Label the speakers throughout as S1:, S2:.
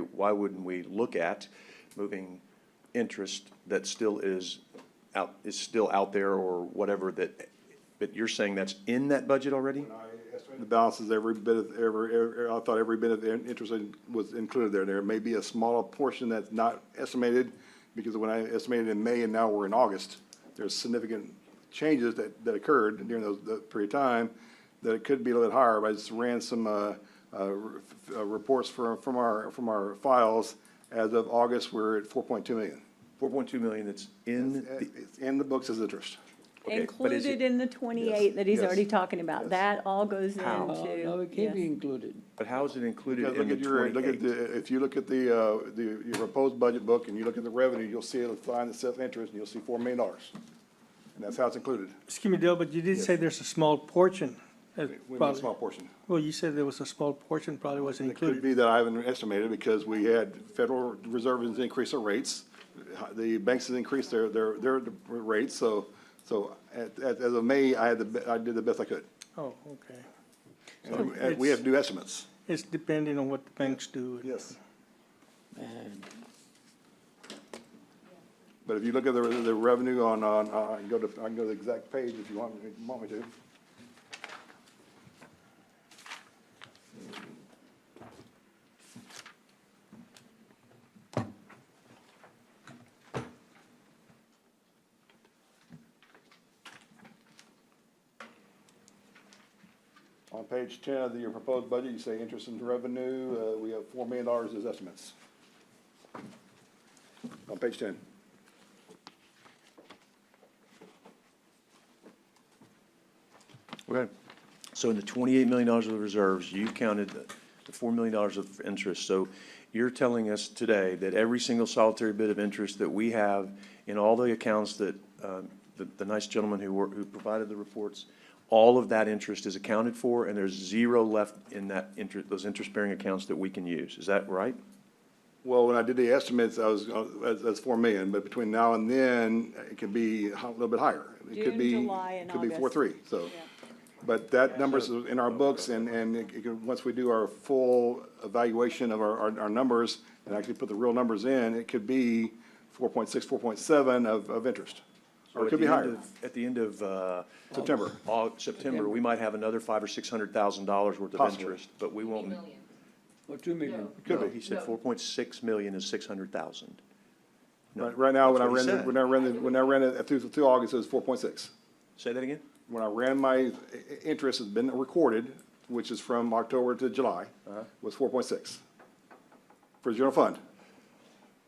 S1: why wouldn't we look at moving interest that still is out, is still out there or whatever that, but you're saying that's in that budget already?
S2: The balance is every bit of, every, every- I thought every bit of in- interest in- was included there. There may be a smaller portion that's not estimated, because when I estimated in May and now we're in August, there's significant changes that, that occurred during those, that period of time, that it could be a little higher, but I just ran some, uh, uh, re- uh, reports from, from our, from our files. As of August, we're at four point two million.
S1: Four point two million that's in the,
S2: It's in the books as interest.
S1: Okay, but is it-
S3: Included in the twenty-eight that he's
S2: yes,
S3: already talking about,
S2: yes.
S3: that all goes into.
S1: How?
S4: Oh, no, it can be
S3: yes.
S4: included.
S1: but how is it included
S2: Because
S1: in
S2: look
S1: the
S2: at your, look at
S1: twenty-eight?
S2: the, if you look at the, uh, the, your proposed budget book and you look at the revenue, you'll see a line that says interest and you'll see four million dollars. And that's how it's included,
S5: Excuse me, Dale, but you did say there's a small portion. that
S2: with a
S5: probably-
S2: small portion.
S5: Well, you said there was a small portion probably wasn't
S2: It could
S5: included.
S2: be that I haven't estimated because we had Federal Reserve has increased their rates. The banks has increased their, their, their rates, so, so at, at, as of May, I had the, be- I did the best I could.
S5: Oh, okay.
S2: And we- and we have new estimates.
S5: It's depending on what the banks do.
S2: Yes.
S4: And
S2: But if you look at the, the revenue on, on, uh, I can go to, I can go to the exact page if you want, me- want me to. On page ten of the your proposed budget, you say interest and revenue, uh, we have four million dollars as estimates. On page ten.
S1: Okay, so in the twenty-eight million dollars of the reserves, you counted the the four million dollars of interest. So you're telling us today that every single solitary bit of interest that we have in all the accounts that, um, the, the nice gentleman who were, who provided the reports, all of that interest is accounted for and there's zero left in that interest, those interest-bearing accounts that we can use. Is that right?
S2: Well, when I did the estimates, I was, that's, that's four million, but between now and then, it could be a little bit higher. It could
S3: June,
S2: be-
S3: July, and
S2: Could be four,
S3: August.
S2: three, so. But that number's in our books, and, and it it could, once we do our full evaluation of our, our, our numbers, and actually put the real numbers in, it could be four point six, four point seven of, of interest. Or
S1: At
S2: it could be
S1: the end
S2: higher.
S1: of- At the end of, uh.
S2: September.
S1: Au- September, we might have another five or six hundred thousand dollars worth of
S2: Possibly.
S1: interest, but we won't.
S6: million.
S4: Or two million.
S2: Could
S1: No,
S2: be.
S1: He said
S6: No.
S1: four point six million is six hundred thousand.
S2: Right, right now, when I
S1: That's what
S2: ran,
S1: he
S2: the-
S1: said.
S2: when I ran, the- when I ran it through, through August, it was four point six.
S1: Say that again?
S2: when I ran my i- i- interest has been recorded, which is from October to July,
S1: Uh-huh.
S2: was four point six for general fund.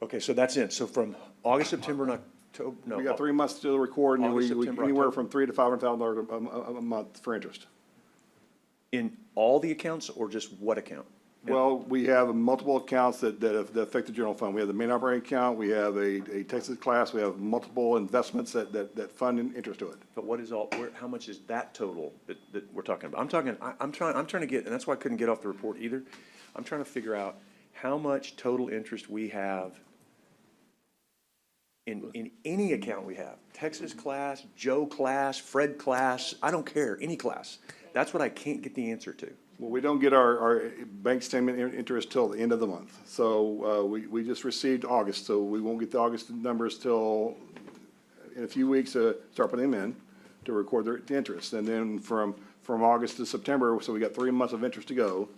S1: Okay, so that's it. So from August, September, and October, no.
S2: We got three months to record, and we,
S1: August,
S2: we-
S1: September,
S2: anywhere
S1: October.
S2: from three to five hundred thousand dollars a, a- a month for interest.
S1: In all the accounts or just what account?
S2: Well, we have multiple accounts that, that have- that affect the general fund. We have the main operating account, we have a, a Texas class, we have multiple investments that, that, that fund in- interest to it.
S1: But what is all, where, how much is that total that, that we're talking about? I'm talking, I, I'm trying, I'm trying to get, and that's why I couldn't get off the report either. I'm trying to figure out how much total interest we have in, in any account we have. Texas class, Joe class, Fred class, I don't care, any class. That's what I can't get the answer to.
S2: Well, we don't get our, our bank statement in- interest till the end of the month. So, uh, we, we just received August, so we won't get the August numbers till in a few weeks, uh, start putting them in to record their interest. And then from, from August to September, so we got three months of interest to go.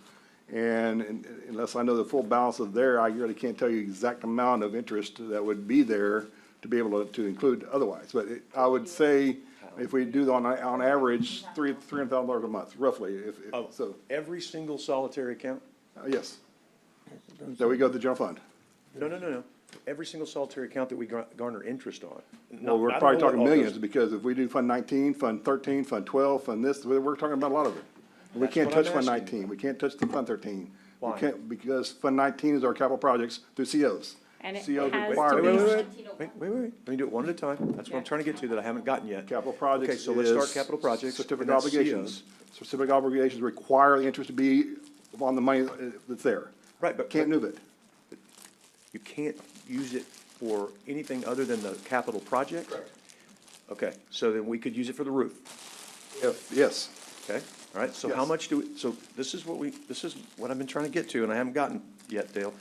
S2: And and unless I know the full balance of there, I really can't tell you exact amount of interest that would be there to be able to, to include otherwise. But it- I would say if we do on, on average, three, three hundred thousand dollars a month, roughly, if, if-
S1: Oh.
S2: so,
S1: Every single solitary account?
S2: uh, yes. So we go to the general fund.
S1: No, no, no, no. Every single solitary account that we gar- garner interest on.
S2: Well,
S1: Not- I
S2: we're
S1: don't
S2: probably
S1: know what
S2: talking
S1: all goes-
S2: millions, because if we do Fund nineteen, Fund thirteen, Fund twelve, Fund this, we're, we're talking about a lot of it. And We
S1: That's
S2: can't
S1: what I'm
S2: touch Fund
S1: asking.
S2: nineteen, we can't touch the Fund thirteen. We
S1: Why?
S2: can't, because Fund nineteen is our capital projects through COs.
S3: And it
S2: COs
S3: has
S2: require
S3: to
S1: Wait, wait,
S2: interest.
S1: wait, wait, wait, wait, wait, let me do it one at a time, that's what I'm
S3: Yeah.
S1: trying to get to, that I haven't gotten yet.
S2: Capital projects
S1: Okay, so let's start
S2: is
S1: capital projects. and
S2: Certificate
S1: that's
S2: obligations.
S1: COs.
S2: Certificate obligations require the interest to be on the money uh, that's there.
S1: Right, but-
S2: Can't
S1: but-
S2: move it.
S1: You can't use it for anything other than the capital project? Okay, so then we could use it for the roof,
S2: If, yes,
S1: okay? All right, so how
S2: Yes.
S1: much do, we? so this is what we, this is what I've been trying to get to, and I haven't gotten yet, Dale.